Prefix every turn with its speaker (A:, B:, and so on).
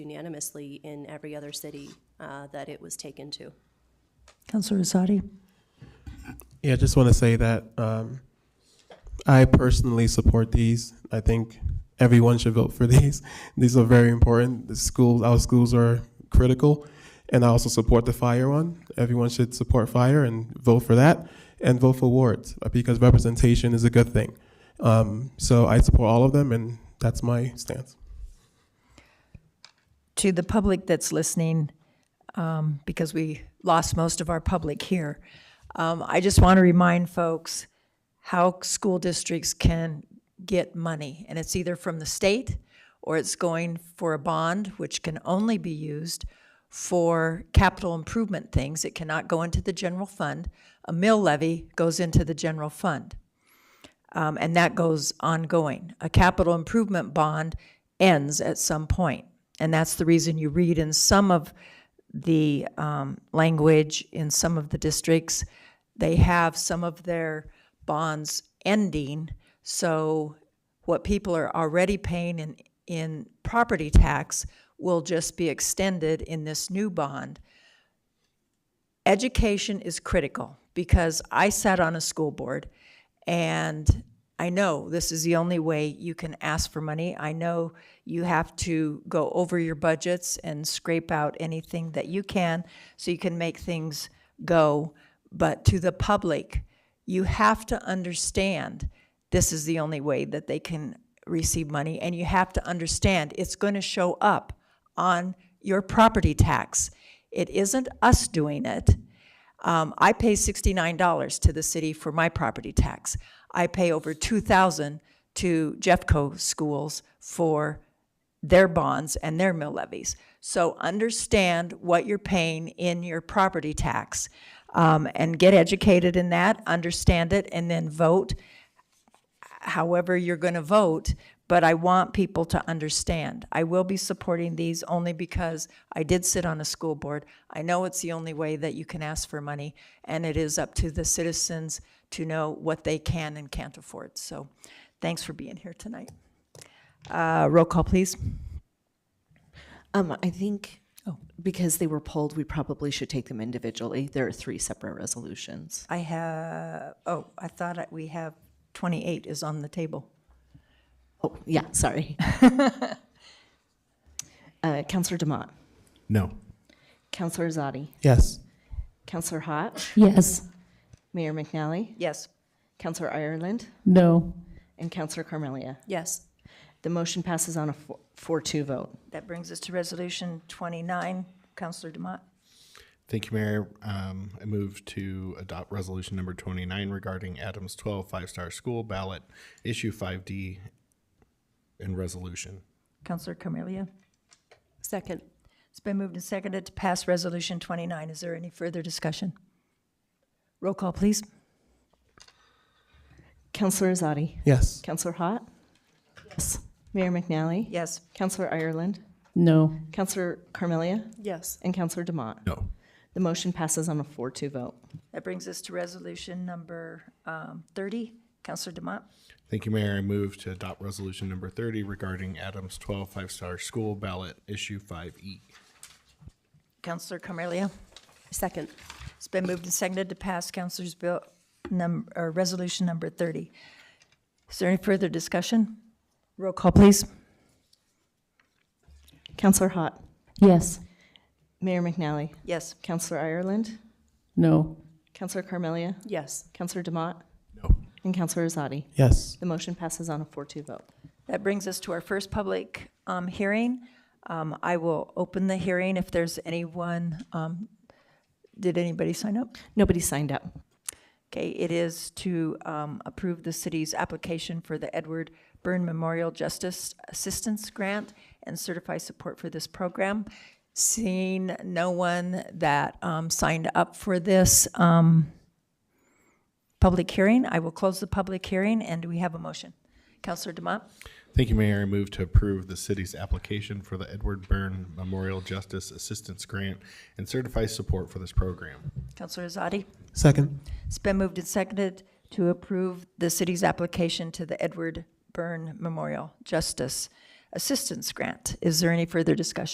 A: unanimously in every other city uh, that it was taken to.
B: Counselor Rosati?
C: Yeah, I just want to say that um, I personally support these. I think everyone should vote for these. These are very important. The schools, our schools are critical. And I also support the fire one. Everyone should support fire and vote for that and vote for wards uh, because representation is a good thing. Um, so I support all of them, and that's my stance.
B: To the public that's listening, um, because we lost most of our public here, um, I just want to remind folks how school districts can get money. And it's either from the state, or it's going for a bond, which can only be used for capital improvement things. It cannot go into the general fund. A mill levy goes into the general fund. um, and that goes ongoing. A capital improvement bond ends at some point, and that's the reason you read in some of the um, language in some of the districts, they have some of their bonds ending, so what people are already paying in, in property tax will just be extended in this new bond education is critical because I sat on a school board and I know this is the only way you can ask for money. I know you have to go over your budgets and scrape out anything that you can so you can make things go. But to the public, you have to understand this is the only way that they can receive money. And you have to understand it's going to show up on your property tax. It isn't us doing it. Um, I pay sixty-nine dollars to the city for my property tax. I pay over two thousand to Jeffco schools for their bonds and their mill levies. So understand what you're paying in your property tax, um, and get educated in that, understand it, and then vote however you're going to vote, but I want people to understand. I will be supporting these only because I did sit on a school board. I know it's the only way that you can ask for money, and it is up to the citizens to know what they can and can't afford. So thanks for being here tonight. Uh, Roll call, please.
D: Um, I think because they were pulled, we probably should take them individually. There are three separate resolutions.
B: I have, oh, I thought I- we have 28 is on the table.
D: Oh, yeah, sorry. uh, Councillor Demott,
E: No.
D: Councillor Zadi,
C: Yes.
D: Councillor Hott,
F: Yes.
D: Mayor McNally,
B: Yes.
D: Councillor Ireland,
F: No.
D: and Councillor Carmelia.
A: Yes.
D: The motion passes on a four-two vote.
B: That brings us to Resolution 29. Counselor Demott?
E: Thank you, Mayor. Um, I move to adopt resolution number twenty-nine regarding Adams 12 5 five-star school ballot, issue five D and resolution.
B: Counselor Carmelia?
A: Second.
B: It's been moved and seconded to pass Resolution 29. Is there any further discussion? Roll call, please.
D: Councillor Zadi,
C: Yes.
D: Councillor Hott, yes. Mayor McNally,
B: Yes.
D: Councillor Ireland,
F: No.
D: Councillor Carmelia,
A: Yes.
D: and Councillor Demott.
E: No.
D: The motion passes on a four-two vote.
B: That brings us to Resolution Number um, 30. Counselor Demott?
E: Thank you, Mayor. I move to adopt resolution number thirty regarding Adams 12 5 five-star school ballot, issue five E.
B: Counselor Carmelia?
A: Second.
B: It's been moved and seconded to pass Counselor's Bill, num- or Resolution Number 30. Is there any further discussion? Roll call, please.
D: Councillor Hott,
F: Yes.
D: Mayor McNally,
B: Yes.
D: Councillor Ireland,
F: No.
D: Councillor Carmelia,
A: Yes.
D: Councillor Demott,
E: No.
D: and Councillor Azadi.
C: Yes.
D: The motion passes on a four-two vote.
B: That brings us to our first public um, hearing. Um, I will open the hearing if there's anyone, um, did anybody sign up?
D: Nobody signed up.
B: Okay, it is to um, approve the city's application for the Edward Byrne Memorial Justice Assistance Grant and certify support for this program. Seeing no one that um, signed up for this um, public hearing, I will close the public hearing, and do we have a motion? Counselor Demott?
E: Thank you, Mayor. I move to approve the city's application for the Edward Byrne Memorial Justice Assistance Grant and certify support for this program.
B: Counselor Azadi?
C: Second.
B: It's been moved and seconded to approve the city's application to the Edward Byrne Memorial Justice Assistance Grant. Is there any further discussion?